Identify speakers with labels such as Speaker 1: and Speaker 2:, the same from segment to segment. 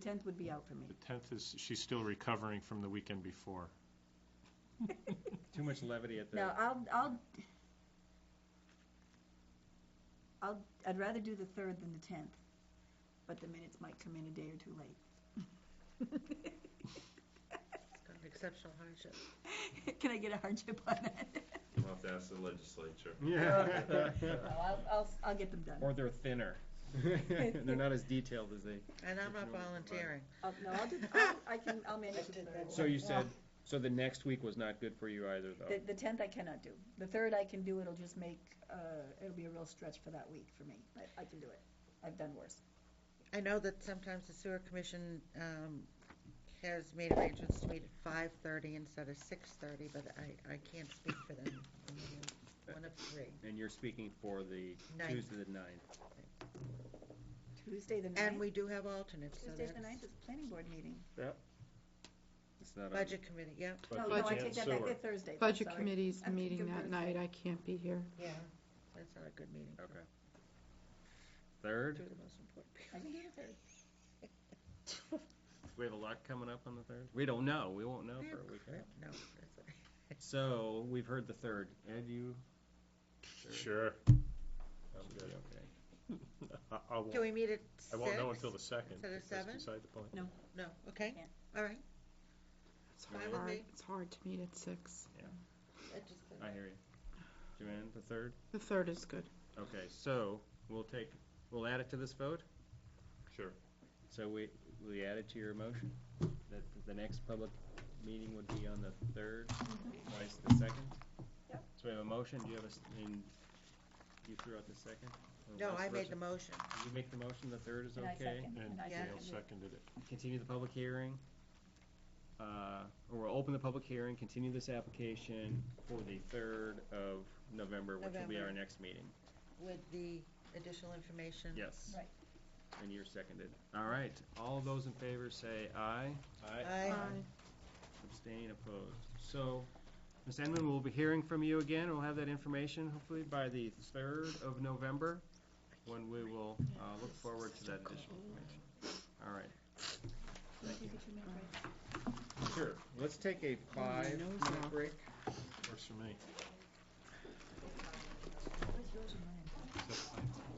Speaker 1: tenth would be out for me.
Speaker 2: The 10th is, she's still recovering from the weekend before.
Speaker 3: Too much levity at the.
Speaker 1: No, I'll, I'll, I'll, I'd rather do the third than the tenth, but the minutes might come in a day or two late.
Speaker 4: Got an exceptional hardship.
Speaker 1: Can I get a hardship on that?
Speaker 5: You'll have to ask the legislature.
Speaker 3: Yeah.
Speaker 1: No, I'll, I'll, I'll get them done.
Speaker 3: Or they're thinner. They're not as detailed as they.
Speaker 4: And I'm not
Speaker 3: Original provider.
Speaker 4: volunteering.
Speaker 1: I'll, no, I'll do, I'll, I can, I'll manage the third.
Speaker 3: So you said, so the next week was not good for you either,
Speaker 1: The,
Speaker 3: though?
Speaker 1: the tenth I cannot do. The third I can do, it'll just make, uh, it'll be a real stretch for that week for me. I, I can do it. I've done worse.
Speaker 4: I know that sometimes the sewer commission um, has made arrangements to meet at 5:30 instead of 6:30, but I, I can't speak for them. I'm the One of three.
Speaker 3: And you're speaking for the
Speaker 4: Ninth.
Speaker 3: Tuesday the ninth.
Speaker 1: Tuesday the
Speaker 4: And
Speaker 1: ninth,
Speaker 4: we do have alternates, so
Speaker 1: Tuesday
Speaker 4: that's
Speaker 1: the ninth is planning board meeting.
Speaker 3: It's not on-
Speaker 4: budget committee, yep.
Speaker 1: No, Oh, no, I
Speaker 2: and
Speaker 1: take that back,
Speaker 2: sewer.
Speaker 1: they're Thursday. I'm
Speaker 6: Budget
Speaker 1: sorry.
Speaker 6: committee's
Speaker 1: I'm
Speaker 6: meeting that
Speaker 1: confused.
Speaker 6: night, I can't be here.
Speaker 4: Yeah, that's not a good meeting.
Speaker 3: Okay.
Speaker 4: Two
Speaker 3: Third?
Speaker 4: of the most important people.
Speaker 1: I can do the third.
Speaker 3: Do we have a lot coming up on the third? We don't know. We won't know for a week. right?
Speaker 4: No, that's it.
Speaker 3: So we've heard the third. Ed, you?
Speaker 2: Sure.
Speaker 3: I'm good. Okay.
Speaker 2: I- I won't-
Speaker 4: Can we meet at 6?
Speaker 2: I won't know until the 2nd.
Speaker 4: Instead of
Speaker 2: That's
Speaker 4: seven?
Speaker 2: beside the point.
Speaker 4: No, okay,
Speaker 1: Yeah.
Speaker 4: all right.
Speaker 6: It's
Speaker 4: Fine with
Speaker 6: hard,
Speaker 4: me.
Speaker 6: it's hard to meet at six.
Speaker 4: That just-
Speaker 3: I hear you. Joanne, the third?
Speaker 6: The third is good.
Speaker 3: Okay, so we'll take, we'll add it to this vote?
Speaker 2: Sure.
Speaker 3: So we, we add it to your motion, that the next public meeting would be on the third,
Speaker 4: Mm-hmm.
Speaker 3: twice the second?
Speaker 1: Yep.
Speaker 3: So we have a motion, do you have a, s- and you threw out the second? Or
Speaker 4: No,
Speaker 3: vice
Speaker 4: I made
Speaker 3: versa?
Speaker 4: the motion.
Speaker 3: You make the motion, the third is
Speaker 1: And I
Speaker 3: okay?
Speaker 1: second,
Speaker 2: And
Speaker 1: and I
Speaker 4: Yeah.
Speaker 2: Gail
Speaker 1: second.
Speaker 2: seconded it.
Speaker 3: Continue the public hearing. Uh, or we'll open the public hearing, continue this application for the third of November, which will be our
Speaker 4: November.
Speaker 3: next meeting.
Speaker 4: With the additional information?
Speaker 3: Yes.
Speaker 1: Right.
Speaker 3: And you're seconded. All right, all those in favor say aye.
Speaker 4: I,
Speaker 3: Abstain, opposed. So, Ms. Enman, we'll be hearing from you again. We'll have that information hopefully by the 3rd of November, when we will uh, look forward to that additional information. All right.
Speaker 1: Can you get your mic right?
Speaker 3: Sure. Let's take a five-minute break.
Speaker 2: Works for me.
Speaker 1: Where's yours and mine?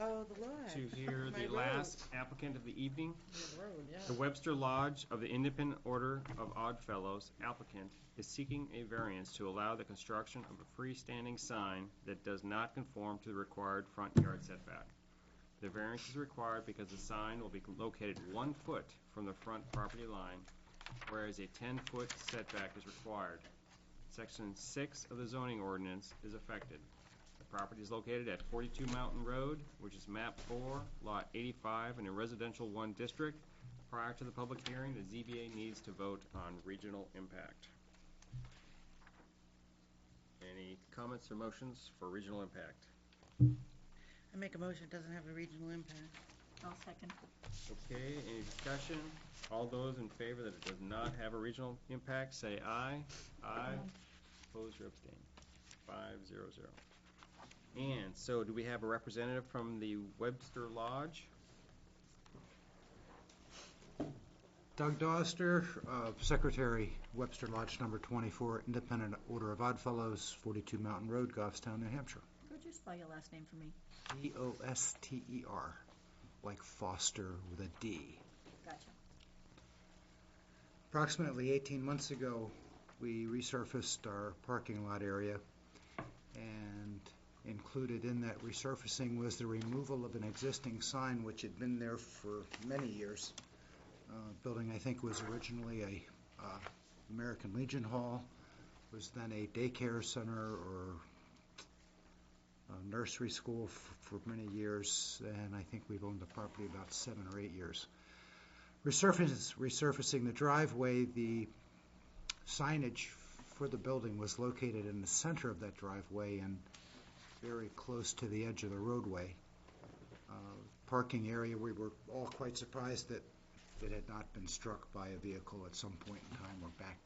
Speaker 4: oh, the lodge.
Speaker 3: To hear
Speaker 4: My
Speaker 3: the
Speaker 4: road.
Speaker 3: last applicant of the evening,
Speaker 4: The road, yeah.
Speaker 3: the Webster Lodge of the Independent Order of Odd Fellows applicant is seeking a variance to allow the construction of a freestanding sign that does not conform to the required front yard setback. The variance is required because the sign will be located one foot from the front property line, whereas a ten-foot setback is required. Section six of the zoning ordinance is affected. The property is located at forty-two Mountain Road, which is map four, lot eighty-five, in a residential one district. Prior to the public hearing, the ZBA needs to vote on regional impact. Any comments or motions for regional impact?
Speaker 4: I make a motion, it doesn't have a regional impact.
Speaker 1: I'll second.
Speaker 3: Okay, any discussion? All those in favor that it does not have a regional impact, say aye. Aye. Opposed or abstained? Five, zero, zero. And so do we have a representative from the Webster Lodge?
Speaker 7: Doug Doster, uh, Secretary, Webster Lodge Number 24, Independent Order of Oddfellows, 42 Mountain Road, Goffstown, New Hampshire.
Speaker 1: Could you spell your last name for me?
Speaker 7: D-O-S-T-E-R, E like Foster with a D.
Speaker 1: Gotcha.
Speaker 7: Approximately 18 months ago, we resurfaced our parking lot area, and included in that resurfacing was the removal of an existing sign which had been there for many years. Uh, Building, I think, was originally a uh, American Legion Hall, was then a daycare center or a nursery school f- for many years, and I think we've owned the property about seven or eight years resurfacing, resurfacing the driveway, the signage for the building was located in the center of that driveway and very close to the edge of the roadway. Uh, Parking area, we were all quite surprised that it had not been struck by a vehicle at some point in time or backed